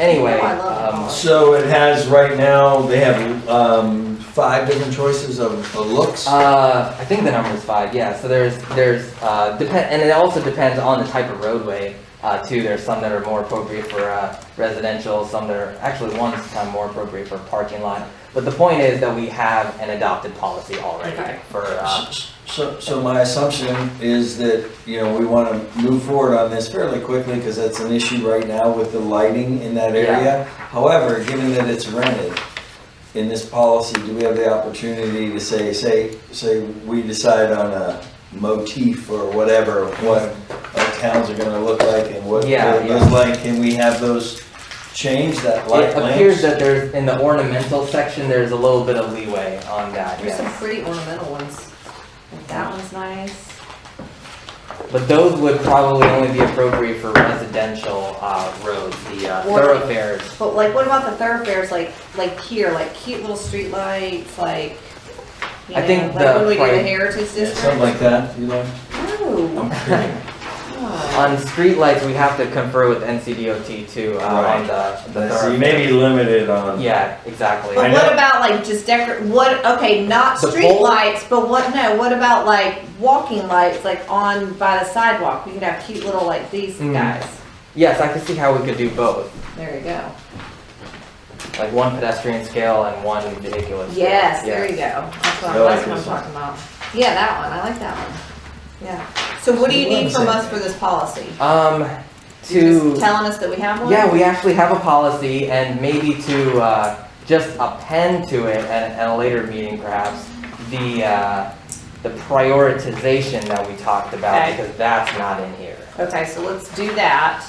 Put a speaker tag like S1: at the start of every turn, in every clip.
S1: Anyway,
S2: Oh, I love
S1: um,
S3: So it has, right now, they have um, five different choices of of looks.
S1: Uh, I think the number is five. Yeah. So there's there's uh, depend and it also depends on the type of roadway uh, too. There's some that are more appropriate for uh, residential. Some that are actually one's kind of more appropriate for parking lot. But the point is that we have an adopted policy already
S2: Okay.
S1: for. Uh,
S3: So, so my assumption is that, you know, we want to move forward on this fairly quickly because that's an issue right now with the lighting in that area. However, given that it's rented, in this policy, do we have the opportunity to say, say, say we decide on a motif or whatever, of what our towns are going to look like and what
S1: Yeah,
S3: it looks
S1: yeah.
S3: like? Can we have those change that light
S1: it appears
S3: lamps?
S1: that there's in the ornamental section there's a little bit of leeway on that.
S2: There's
S1: Yes.
S2: some pretty ornamental ones. Like that one's nice.
S1: But those would probably only be appropriate for residential uh, roads, the uh,
S2: Or-
S1: thoroughfares.
S2: But like, what about the thoroughfares, like, like here, like cute little streetlights, like, you
S1: I
S2: know,
S1: think
S2: like when
S1: the
S2: we do the
S1: pri-
S2: heritage
S3: Yeah, Um,
S2: district?
S3: Something like that, you know?
S2: No. Oh.
S1: On streetlights, we have to confer with NCDOT too, uh, on
S3: Right.
S1: the, the.
S3: So you may be limited on.
S1: Yeah, exactly.
S3: I
S2: But
S3: know.
S2: what about like just decor, what, okay, not
S1: The
S2: street
S1: pole?
S2: lights, but what, no, what about like walking lights, like on by the sidewalk? We could have cute little like these
S1: Mm.
S2: guys.
S1: Yes, I can see how we could do both,
S2: There you go.
S1: like one pedestrian scale and one vehicular. scale.
S2: Yes,
S1: Yeah.
S2: there you go. That's what,
S3: I like
S2: that's what I'm
S3: this one.
S2: talking about. Yeah, that one, I like that one. Yeah. So what do you need from us for this policy?
S1: Um,
S2: You're
S1: to,
S2: Just telling us that we have one?
S1: yeah, we actually have a policy and maybe to, uh, just append to it at, at a later meeting perhaps, the, uh, the prioritization that we talked about,
S2: Okay.
S1: because that's not in here.
S2: Okay, so let's do that.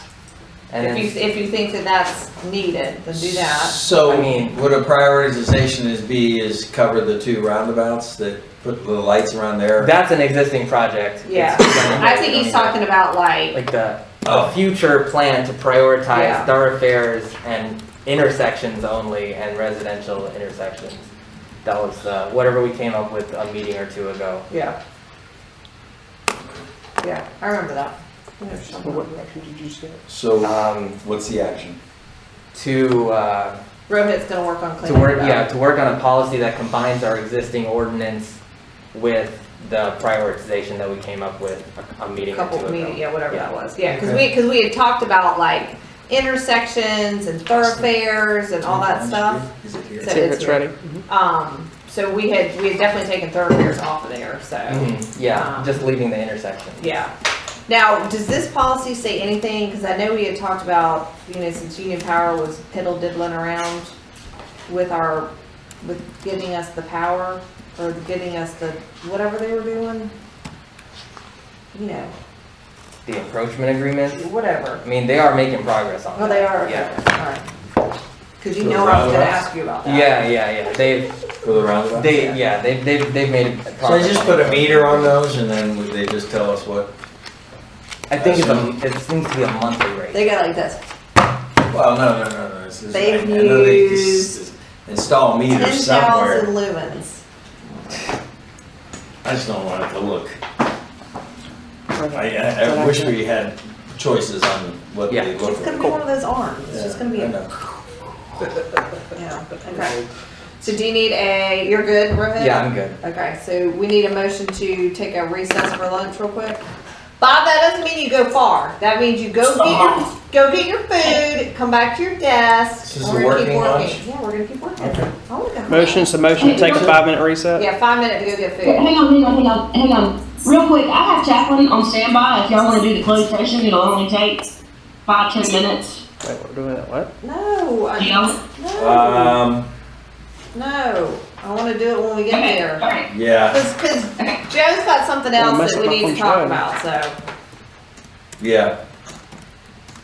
S1: And
S2: If
S1: then
S2: you, if you think that that's needed, then do that.
S3: So,
S1: I mean-
S3: what a prioritization is be is cover the two roundabouts that put the lights around there.
S1: That's an existing project.
S2: Yeah. I think he's talking about like,
S1: Like the,
S3: Oh.
S1: a future plan to prioritize
S2: Yeah.
S1: thoroughfares and intersections only and residential intersections. That was, uh, whatever we came up with a meeting or two ago.
S2: yeah. Yeah, I remember that.
S4: What action did you say?
S3: So,
S1: Um,
S3: what's the action?
S1: to, uh,
S2: Rohit's gonna work on
S1: to
S2: cleaning
S1: work,
S2: it up.
S1: yeah, to work on a policy that combines our existing ordinance with the prioritization that we came up with a, a meeting
S2: A
S1: or two ago.
S2: couple of meetings, yeah, whatever
S1: Yeah.
S2: that was, yeah, because we, because we had talked about like intersections and thoroughfares and all that stuff.
S3: Is it here?
S2: So it's here. Um, so we had, we had definitely taken thoroughfares off of there, so,
S1: Mhm, yeah,
S2: Um,
S1: just leaving the intersection.
S2: yeah. Now, does this policy say anything, because I know we had talked about, you know, since Union Power was piddle diddling around with our, with giving us the power, or giving us the, whatever they were doing. You know,
S1: The encroachment agreement.
S2: whatever.
S1: I mean, they are making progress on
S2: Oh,
S1: that.
S2: they are, okay,
S1: Yeah.
S2: alright. Cause you
S3: Those
S2: know I was gonna
S3: roundabouts?
S2: ask you about that.
S1: Yeah, yeah, yeah. They've,
S3: For the roundabout?
S1: they, yeah, they've, they've, they've made
S3: So I
S1: progress.
S3: just put a meter on those and then would they just tell us what,
S1: I think it's a, it seems to be a monthly rate.
S2: They got like this,
S3: well, no, no, no, no. this is-
S2: They've
S3: I know they just
S2: used
S3: Install
S2: ten
S3: meters
S2: thousand
S3: somewhere.
S2: lumens.
S3: I just don't want it to look. I, I, I wish we had choices on what
S1: Yeah.
S3: they look
S2: It's gonna
S3: like.
S2: be one of those arms, it's just
S3: Yeah,
S2: gonna be,
S3: I
S2: a-
S3: know.
S2: yeah, okay. So do you need a, you're good, Rohit?
S1: Yeah, I'm good.
S2: Okay, so we need a motion to take a recess for lunch real quick. Bob, that doesn't mean you go far, that means you go get your, go get your food, come back to your desk.
S3: This is
S2: and
S3: a
S2: we're gonna keep
S3: working lunch?
S2: Yeah, we're gonna keep working. Oh, we got-
S4: Motion, so motion to take a five-minute reset?
S2: Yeah, five minutes to go get food.
S5: Hang on, hang on, hang on, hang on. Real quick, I have Jacqueline on standby. If y'all want to do the closed session, it'll only take five, ten minutes.
S4: Wait, we're doing it, what?
S2: No, I,
S5: Yeah.
S2: no,
S3: Um,
S2: no. I want to do it when we get
S5: Okay,
S2: there.
S5: all right.
S3: yeah,
S2: Because Joe's got something
S4: Well,
S2: else
S4: mess
S2: that we
S4: up my
S2: need to
S4: phone
S2: talk
S4: charger.
S2: about, so,
S3: yeah.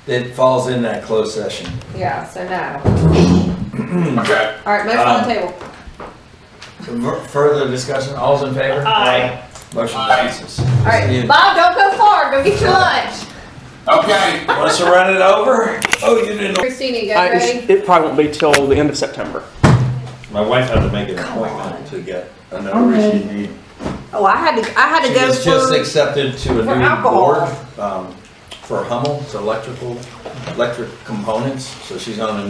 S3: It falls in that closed session.
S2: yeah, so no. All right, motion on the table.
S3: Fur- Further discussion, all's in favor?
S2: Aye.
S3: Motion passes.
S2: All right, Bob, don't go far. Go get your lunch.
S6: Okay.
S3: Want us to run it over? Oh, you didn't.
S2: Christina, you
S4: I-
S2: got ready?
S4: it's- It probably won't be till the end of September.
S3: My wife had to make an appointment to get another issue.
S2: Oh, I had to, I had
S3: She
S2: to go
S3: was just
S2: for,
S3: accepted to a
S2: for
S3: new
S2: alcohol.
S3: board, um, for Hummel, it's electrical, electric components, so she's on a